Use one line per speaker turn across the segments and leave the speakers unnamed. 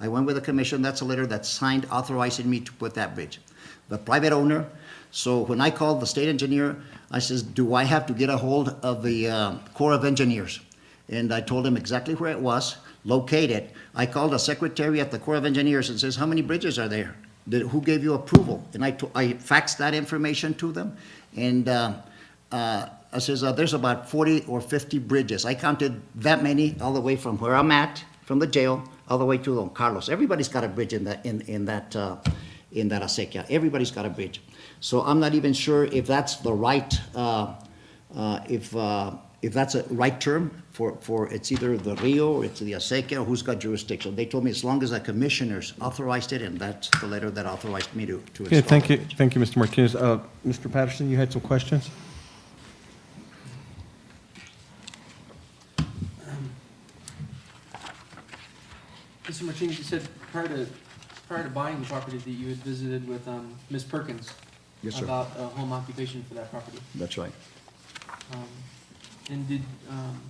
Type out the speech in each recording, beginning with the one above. I went with the commission, that's a letter that's signed authorizing me to put that bridge. The private owner, so when I called the state engineer, I says, do I have to get a hold of the uh, Corps of Engineers? And I told him exactly where it was, locate it. I called the secretary at the Corps of Engineers and says, how many bridges are there? Did, who gave you approval? And I, to- I faxed that information to them, and, uh, uh, I says, uh, there's about forty or fifty bridges. I counted that many all the way from where I'm at, from the jail, all the way to Don Carlos. Everybody's got a bridge in that, in, in that, uh, in that acequia. Everybody's got a bridge. So I'm not even sure if that's the right, uh, uh, if, uh, if that's a right term for, for, it's either the Rio or it's the acequia, who's got jurisdiction. They told me as long as the commissioners authorized it, and that's the letter that authorized me to, to install.
Okay, thank
the
you,
bridge.
thank you, Mr. Martinez. Uh, Mr. Patterson, you had some questions?
Mr. Martinez, you said prior to, prior to buying the property that you had visited with, um, Ms. Perkins.
Yes, sir.
About a home occupation for that property.
That's right.
Um, and did, um,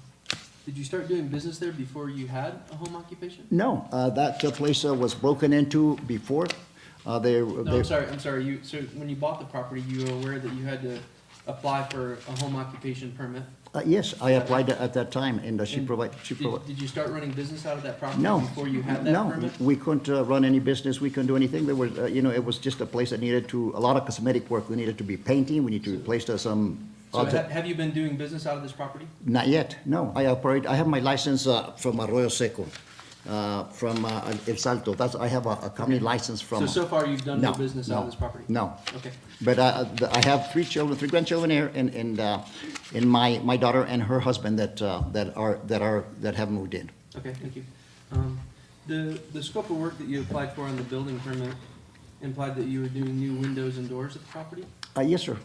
did you start doing business there before you had a home occupation?
No, uh, that uh, place uh, was broken into before. Uh, They,
No,
they,
I'm sorry, I'm sorry, you, so when you bought the property, you were aware that you had to apply for a home occupation permit?
uh, yes, I applied at that time, and uh, she
And
provided, she
Did,
provided,
did you start running business out of that property
no.
before you had that
no,
permit?
We couldn't uh, run any business, we couldn't do anything. There was, uh, you know, it was just a place that needed to, a lot of cosmetic work. We needed to be painting, we need to replace uh, some.
So
other-
ha- have you been doing business out of this property?
Not yet, no. I operate, I have my license uh, from Arroyo Seco, uh, from uh, El Salto. That's, I have a a company license
So,
from.
so far you've done no
No,
business out of
no,
this property?
No.
Okay.
But uh, the- I have three children, three grandchildren here, and, and, uh, and my, my daughter and her husband that, uh, that are, that are, that have moved in.
Okay, thank you. Um, The, the scope of work that you applied for on the building permit implied that you were doing new windows and doors at the property?
Uh, yes, sir.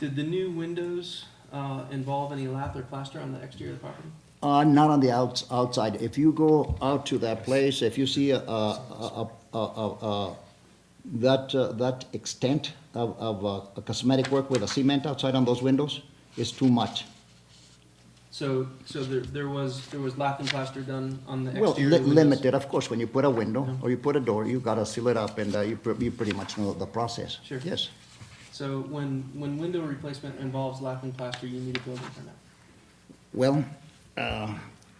Did the new windows uh, involve any lath or plaster on the exterior of the property?
Uh, not on the outs, outside. If you go out to that place, if you see a, a, a, a, a, a that, uh, that extent of, of uh, cosmetic work with a cement outside on those windows is too much.
So, so there, there was, there was lath and plaster done on the
Well, li-
exterior windows?
limited, of course, when you put a window or you put a door, you gotta seal it up and, uh, you, pre- you pretty much know the process.
Sure.
Yes.
So when, when window replacement involves lath and plaster, you need a building permit?
Well,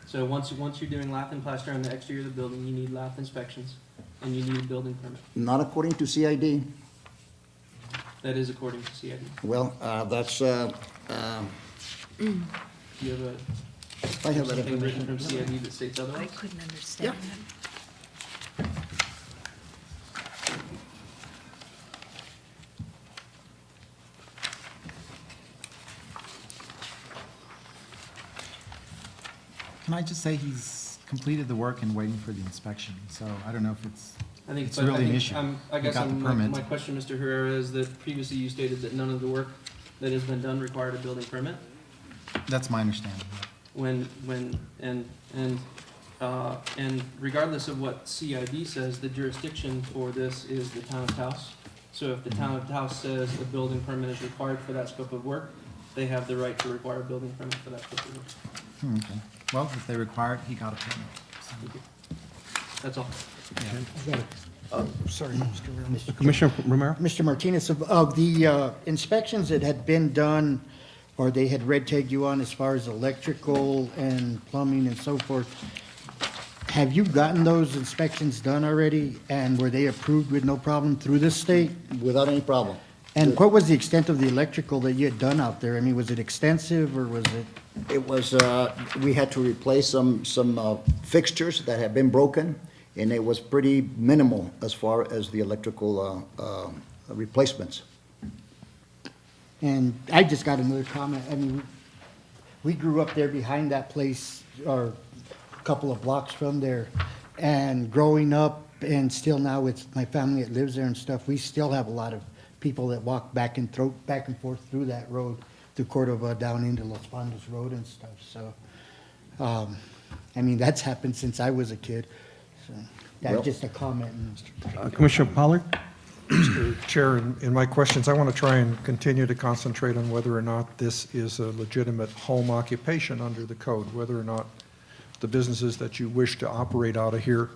So once, once you're doing lath and plaster on the exterior of the building, you need lath inspections, and you need a building permit.
Not according to CID.
That is according to CID.
Well, uh, that's, uh, um,
Do you have a,
I have that
something written from
information.
CID that states
I
otherwise?
couldn't understand them.
Can I just say he's completed the work and waiting for the inspection, so I don't know if it's,
I think,
It's
but I
really an
think
issue.
I'm- I
You
guess
got the
I'm- my,
permit.
my question, Mr. Herrera, is that previously you stated that none of the work that has been done required a building permit.
that's my understanding.
When, when, and, and, uh, and regardless of what CID says, the jurisdiction for this is the town of Taos. So if the
Mm-hmm.
town of Taos says a building permit is required for that scope of work, they have the right to require a building permit for that scope of work.
Hmm, Okay. Well, if they require it, he got a permit.
Thank
so,
you. That's all.
yeah.
Sorry, Mr. Romero.
Commissioner Romero?
Mr. Martinez, of- of the uh, inspections that had been done, or they had red tagged you on as far as electrical and plumbing and so forth, have you gotten those inspections done already? And were they approved with no problem through the state?
Without any problem.
And what was the extent of the electrical that you had done out there? I mean, was it extensive or was it?
It was, uh, we had to replace some, some uh, fixtures that had been broken, and it was pretty minimal as far as the electrical uh, uh, replacements.
And I just got another comment. I mean, we grew up there behind that place, or a couple of blocks from there. And growing up, and still now with my family that lives there and stuff, we still have a lot of people that walk back and throw, back and forth through that road, through Cordova, down into Los Fondos Road and stuff, so. um, I mean, that's happened since I was a kid, so.
Well-
That's just a comment, Mr.
Uh, Commissioner Pollard?
Mr. Chair, in in my questions, I want to try and continue to concentrate on whether or not this is a legitimate home occupation under the code, whether or not the businesses that you wish to operate out of here